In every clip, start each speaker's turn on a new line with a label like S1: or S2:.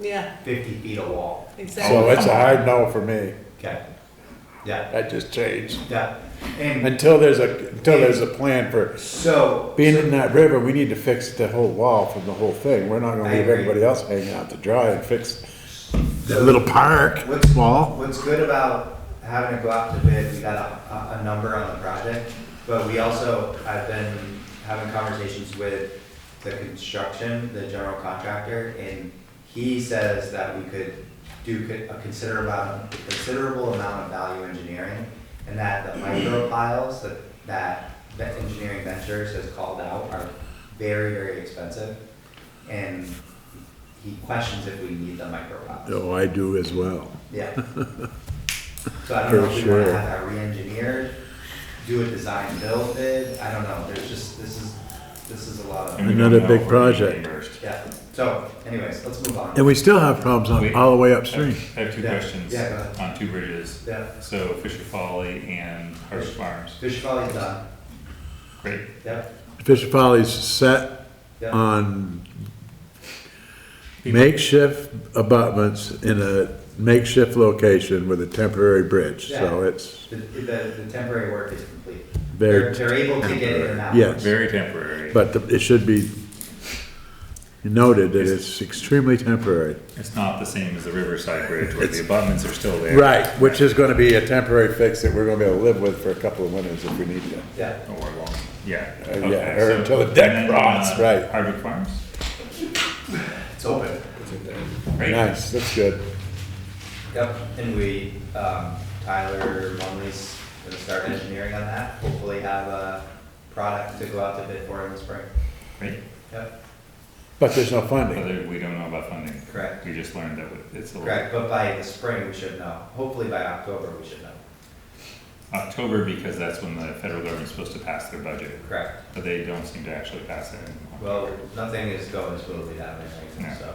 S1: Yeah,
S2: fifty feet of wall,
S1: exactly.
S3: So it's a hard no for me.
S2: okay? Yeah,
S3: That just changed.
S2: yeah, and
S3: Until there's a, until there's a plan for
S2: so.
S3: being in that river, we need to fix the whole wall from the whole thing. We're not gonna
S2: I
S3: leave
S2: agree.
S3: everybody else hanging out to dry and fix the little park
S2: What's,
S3: wall.
S2: what's good about having to go out to bid, we got a, a, a number on the project, but we also, I've been having conversations with the construction, the general contractor, and he says that we could do co- a considerable, considerable amount of value engineering, and that the micro piles that, that Vet Engineering Ventures has called out are very, very expensive, and he questions if we need the micro piles.
S3: Oh, I do as well.
S2: Yeah. So I don't know
S3: For
S2: if we wanna
S3: sure.
S2: have that re-engineered, do a design build bid, I don't know, there's just, this is, this is a lot of,
S3: we Another don't know big if we're gonna project. be
S2: yeah. So anyways, let's move on.
S3: And we still have problems on, all the way upstream.
S4: I have two
S2: Yeah.
S4: questions
S2: Yeah, go ahead.
S4: on two bridges.
S2: Yeah,
S4: So Fisher Folly and Harsh Farms.
S2: Fish Valley's done,
S4: Great.
S2: yep,
S3: Fisher Follies set
S2: yep.
S3: Uh, on makeshift abutments in a makeshift location with a temporary bridge, so
S2: Yeah.
S3: it's
S2: The, the, the temporary work is complete. They're,
S3: very.
S2: they're able to get in and out.
S3: Yes.
S4: Very temporary.
S3: But the- it should be noted that it's extremely temporary.
S4: It's not the same as the Riverside Bridge where
S3: It's-
S4: the abutments are still there.
S3: Right, which is gonna be a temporary fix that we're gonna be able to live with for a couple of winters if we need to.
S2: Yeah,
S4: Or long, yeah.
S3: Uh, yeah,
S4: Okay,
S3: or
S4: so-
S3: until the deck
S4: and then,
S3: rots,
S4: uh,
S3: right.
S4: Hardwick Farms,
S2: it's open.
S4: great.
S3: Nice, that's good.
S2: Yep, and we, um, Tyler Lumley's gonna start engineering on that, hopefully have a product to go out to bid for in the spring.
S4: Great.
S2: Yep,
S3: But there's no
S4: But
S3: funding.
S4: there- we don't know about funding.
S2: Correct.
S4: We just learned that we- it's a little
S2: correct, but by the spring, we should know, hopefully by October, we should know,
S4: October because that's when the federal government's supposed to pass their budget,
S2: correct?
S4: but they don't seem to actually pass it. in
S2: Well,
S4: October.
S2: nothing is going smoothly that way, right? so,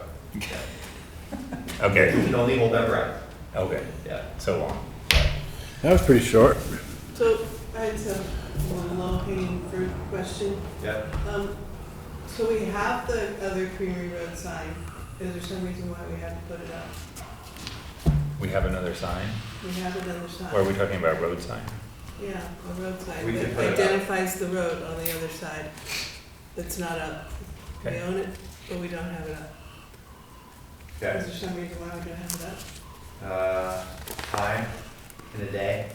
S2: we
S4: Okay,
S2: can only hold our breath,
S4: okay,
S2: yeah.
S4: so long.
S3: That was pretty short.
S1: So I just have one low hanging fruit question.
S2: Yep,
S1: Um, so we have the other Creamery Road sign. Is there some reason why we had to put it up?
S4: We have another sign?
S1: We have another sign.
S4: Or are we talking about road sign?
S1: Yeah, a road sign
S2: We could
S1: that
S2: put it up.
S1: identifies the road on the other side. It's not up. We
S4: Okay.
S1: own it, but we don't have it up. Is
S2: okay,
S1: there some reason why we don't have it up?
S2: uh, time in a day,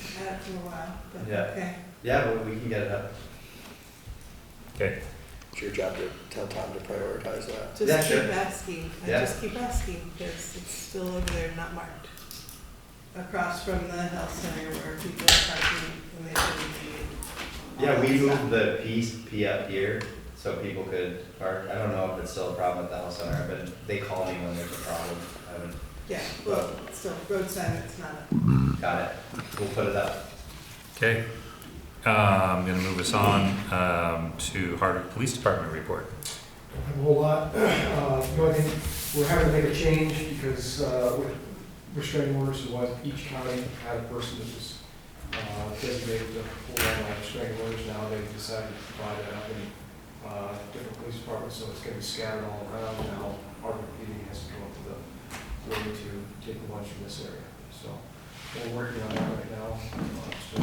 S1: I had it for a while, but
S2: Yeah.
S1: okay.
S2: yeah, but we can get it up.
S4: Okay,
S5: It's your job to tell Tom to prioritize that.
S2: Yeah,
S1: Just keep
S2: sure.
S1: asking, I
S2: Yeah.
S1: just keep asking, because it's still over there, not marked. Across from the health center where people are parking when they
S2: Yeah,
S1: shouldn't be.
S2: we moved the P, P up here, so people could park, I don't know if it's still a problem at the health center, but they call me when there's a problem, I haven't
S1: Yeah, well, still, road sign, it's not up.
S2: got it, we'll put it up.
S4: okay. Uh, I'm gonna move us on, um, to Hardwick Police Department report.
S6: a whole lot. Uh, The only thing, we're having to make a change because uh, with restraining orders, it was each county had a person that was uh, designated to pull down on restraining orders. Now they've decided to divide it up in uh, different police departments, so it's gonna be scattered all around. Now, our PD has to go up to the way to take a bunch from this area. So we're working on that right now. Uh, So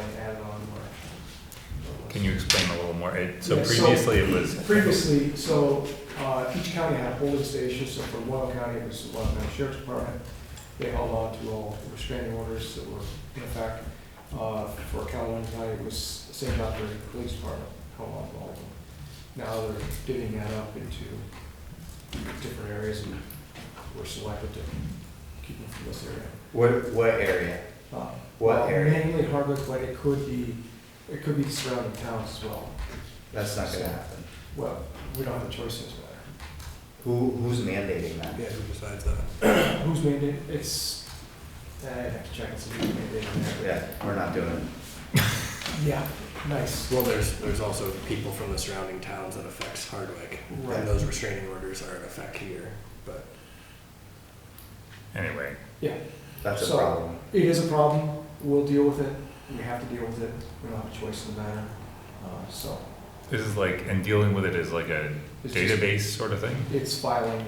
S6: then add it on to our.
S4: Can you explain a little more? It- So
S6: Yeah, so-
S4: previously it was.
S6: Previously, so, uh, each county had a polling station, so for Loyal County, it was the Loyal County Sheriff's Department. They held on to all restraining orders that were in effect. Uh, for Calhoun County, it was St. John Police Department held on to all of them. Now they're divvying that up into different areas and we're selected to keep them from this area.
S2: What, what area?
S6: Uh,
S2: What
S6: well,
S2: area?
S6: Mainly Hardwick, but it could be, it could be surrounding towns as well.
S2: That's not gonna happen.
S6: Well, we don't have a choice in this matter.
S2: Who, who's mandating that?
S6: Yeah, who decides that? Who's made it? It's, uh, I have to check and see who made it.
S2: Yeah, we're not doing it.
S6: Yeah, nice.
S5: Well, there's, there's also people from the surrounding towns that affects Hardwick.
S6: Right.
S5: And those restraining orders are in effect here, but
S4: Anyway,
S6: Yeah,
S2: That's a
S6: So-
S2: problem.
S6: it is a problem. We'll deal with it. We have to deal with it. We don't have a choice in the matter. Uh, so
S4: this is like, and dealing with it is like a
S6: It's just-
S4: database sort of thing?
S6: it's filing